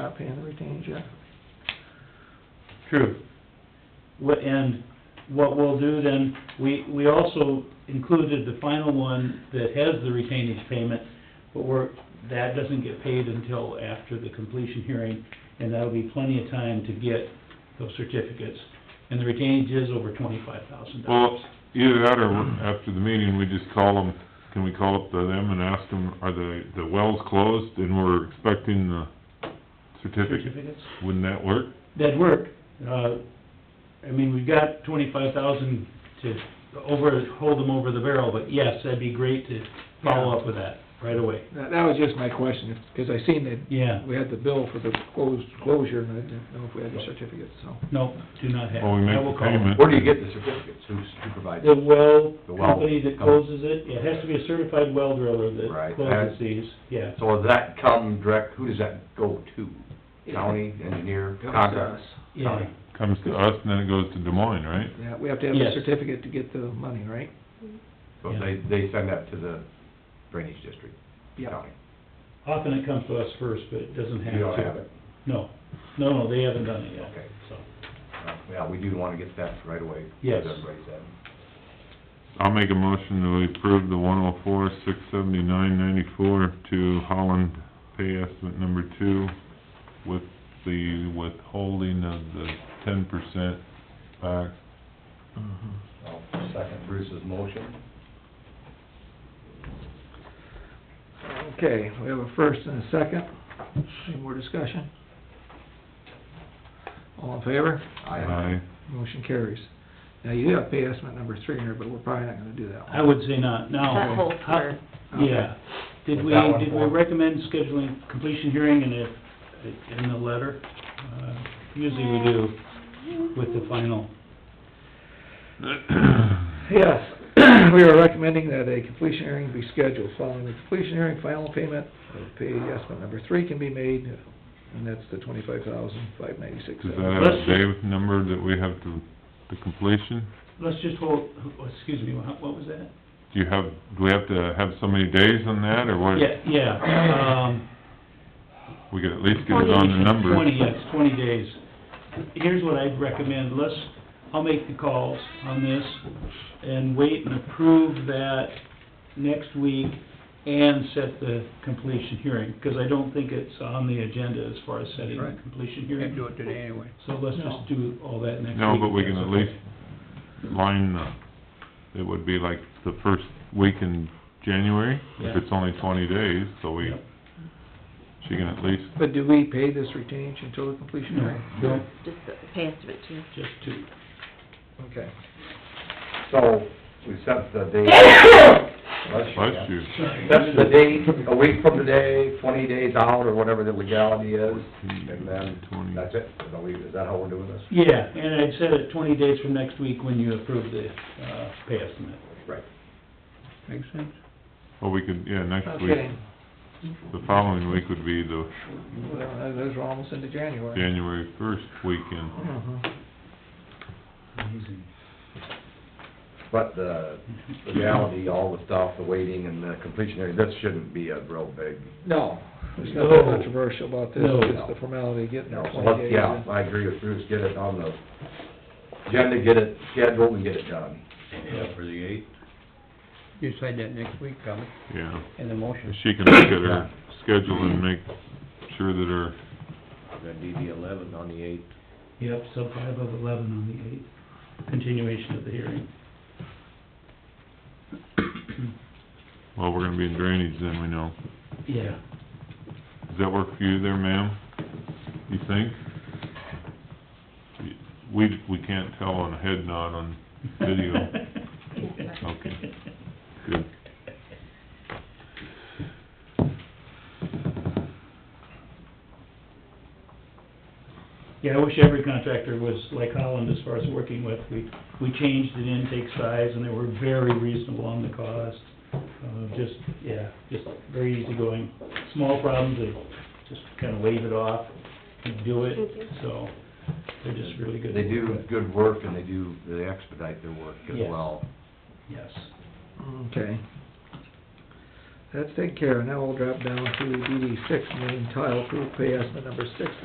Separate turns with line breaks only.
not paying the retained, yeah.
True. What, and what we'll do then, we, we also included the final one that has the retainage payment, but we're, that doesn't get paid until after the completion hearing, and that'll be plenty of time to get those certificates. And the retainage is over twenty-five thousand
Well,
dollars.
either that or after the meeting, we just call them, can we call up to them and ask them, are the, the wells closed and we're expecting the certificate?
Certificates,
Wouldn't that work?
that'd work. Uh, I mean, we've got twenty-five thousand to over, hold them over the barrel, but yes, that'd be great to follow up with that right away.
That, that was just my question, because I seen that
Yeah.
we had the bill for the closed, closure, and I didn't know if we had the certificate, so.
No, do not have.
Well, we make
I will
the
call.
payment.
Where do you get the certificates? Who's, who provides
The
them?
well
The well
company that
company.
closes it, it has to be a certified well driller that
Right.
closes these, yeah.
So does that come direct, who does that go to? County, engineer,
Comes to
contractor?
us.
Yeah,
Comes to us and then it goes to Des Moines, right?
Yeah, we have to have the
Yes.
certificate to get the money, right?
So they, they send that to the drainage district,
Yeah.
county.
often it comes to us first, but it doesn't have to.
You don't have it?
No, no, no, they haven't done it yet,
Okay.
so.
Uh, Yeah, we do wanna get that right away.
Yes.
Everybody's in.
I'll make a motion to approve the one oh four, six seventy-nine ninety-four to Holland pay estimate number two with the withholding of the ten percent back.
Mm-hmm.
I'll second Bruce's motion.
Okay, we have a first and a second. Any more discussion? All in favor?
Aye.
Motion carries. Now, you do have pay estimate number three here, but we're probably not gonna do that one.
I would say not, now.
That holds
Oh, how-
for-
Yeah. Did
Was
we,
that one
did we
for-
recommend scheduling completion hearing in a, in the letter? Uh, Usually we do with the final.
Yes, we are recommending that a completion hearing be scheduled. Following the completion hearing, final payment of pay estimate number three can be made, and that's the twenty-five thousand, five ninety-six.
Does that have a
Let's-
day number that we have to, the completion?
Let's just hold, excuse me, what what was that?
Do you have, do we have to have so many days on that, or what?
Yeah, yeah, um,
We could at least get it on the number.
Twenty, yes, twenty days. Here's what I'd recommend, let's, I'll make the calls on this and wait and approve that next week and set the completion hearing, because I don't think it's on the agenda as far as setting the
Right.
completion hearing. do it today anyway. So let's just do all that next week.
No, but we
if
can
that's
at
okay.
least line the, it would be like the first week in January, if
Yeah.
it's only twenty days, so we,
Yep.
she can at least,
But do we pay this retainage until the completion hearing?
No, no,
Just the pay estimate too.
just two.
Okay.
So, we set the date.
bless you,
That's the date, a week from today, twenty days out, or whatever the legality is, and then, that's it, is that we- is that how we're doing this?
Yeah, and I'd set it twenty days from next week when you approve the, uh, pay estimate.
Right.
Makes sense.
or we could, yeah, next week.
Okay,
The following week would be the
Well, those are almost into January.
January first weekend.
Mhm.
But the legality, all the stuff, the waiting and the completion area, this shouldn't be a real big,
No, there's nothing
No.
controversial about this,
No.
it's the formality of getting
no,
our
so
twenty
let's,
days.
yeah, I agree with Bruce, get it on the agenda, get it scheduled and get it done.
for the eighth?
You decide that next week, probably,
Yeah,
in the motion.
she can look at her schedule and make sure that her
That'd be the eleventh on the eighth.
Yep, sub five of eleven on the eighth, continuation of the hearing.
Well, we're gonna be in drainage then, we know.
Yeah.
Does that work for you there, ma'am? You think? We, we can't tell on a head nod on video. Okay. Good.
Yeah, I wish every contractor was like Holland as far as working with. We, we changed the intake size and they were very reasonable on the cost. Uh, just, yeah, just very easygoing. Small problems, they just kind of wave it off and do it,
Thank you.
so they're just really good.
They
at
do
it.
good work and they do, they expedite their work as
Yes.
well.
Yes.
Okay. That's taken care of. Now we'll drop down to DD six, main tile, approve pay estimate number six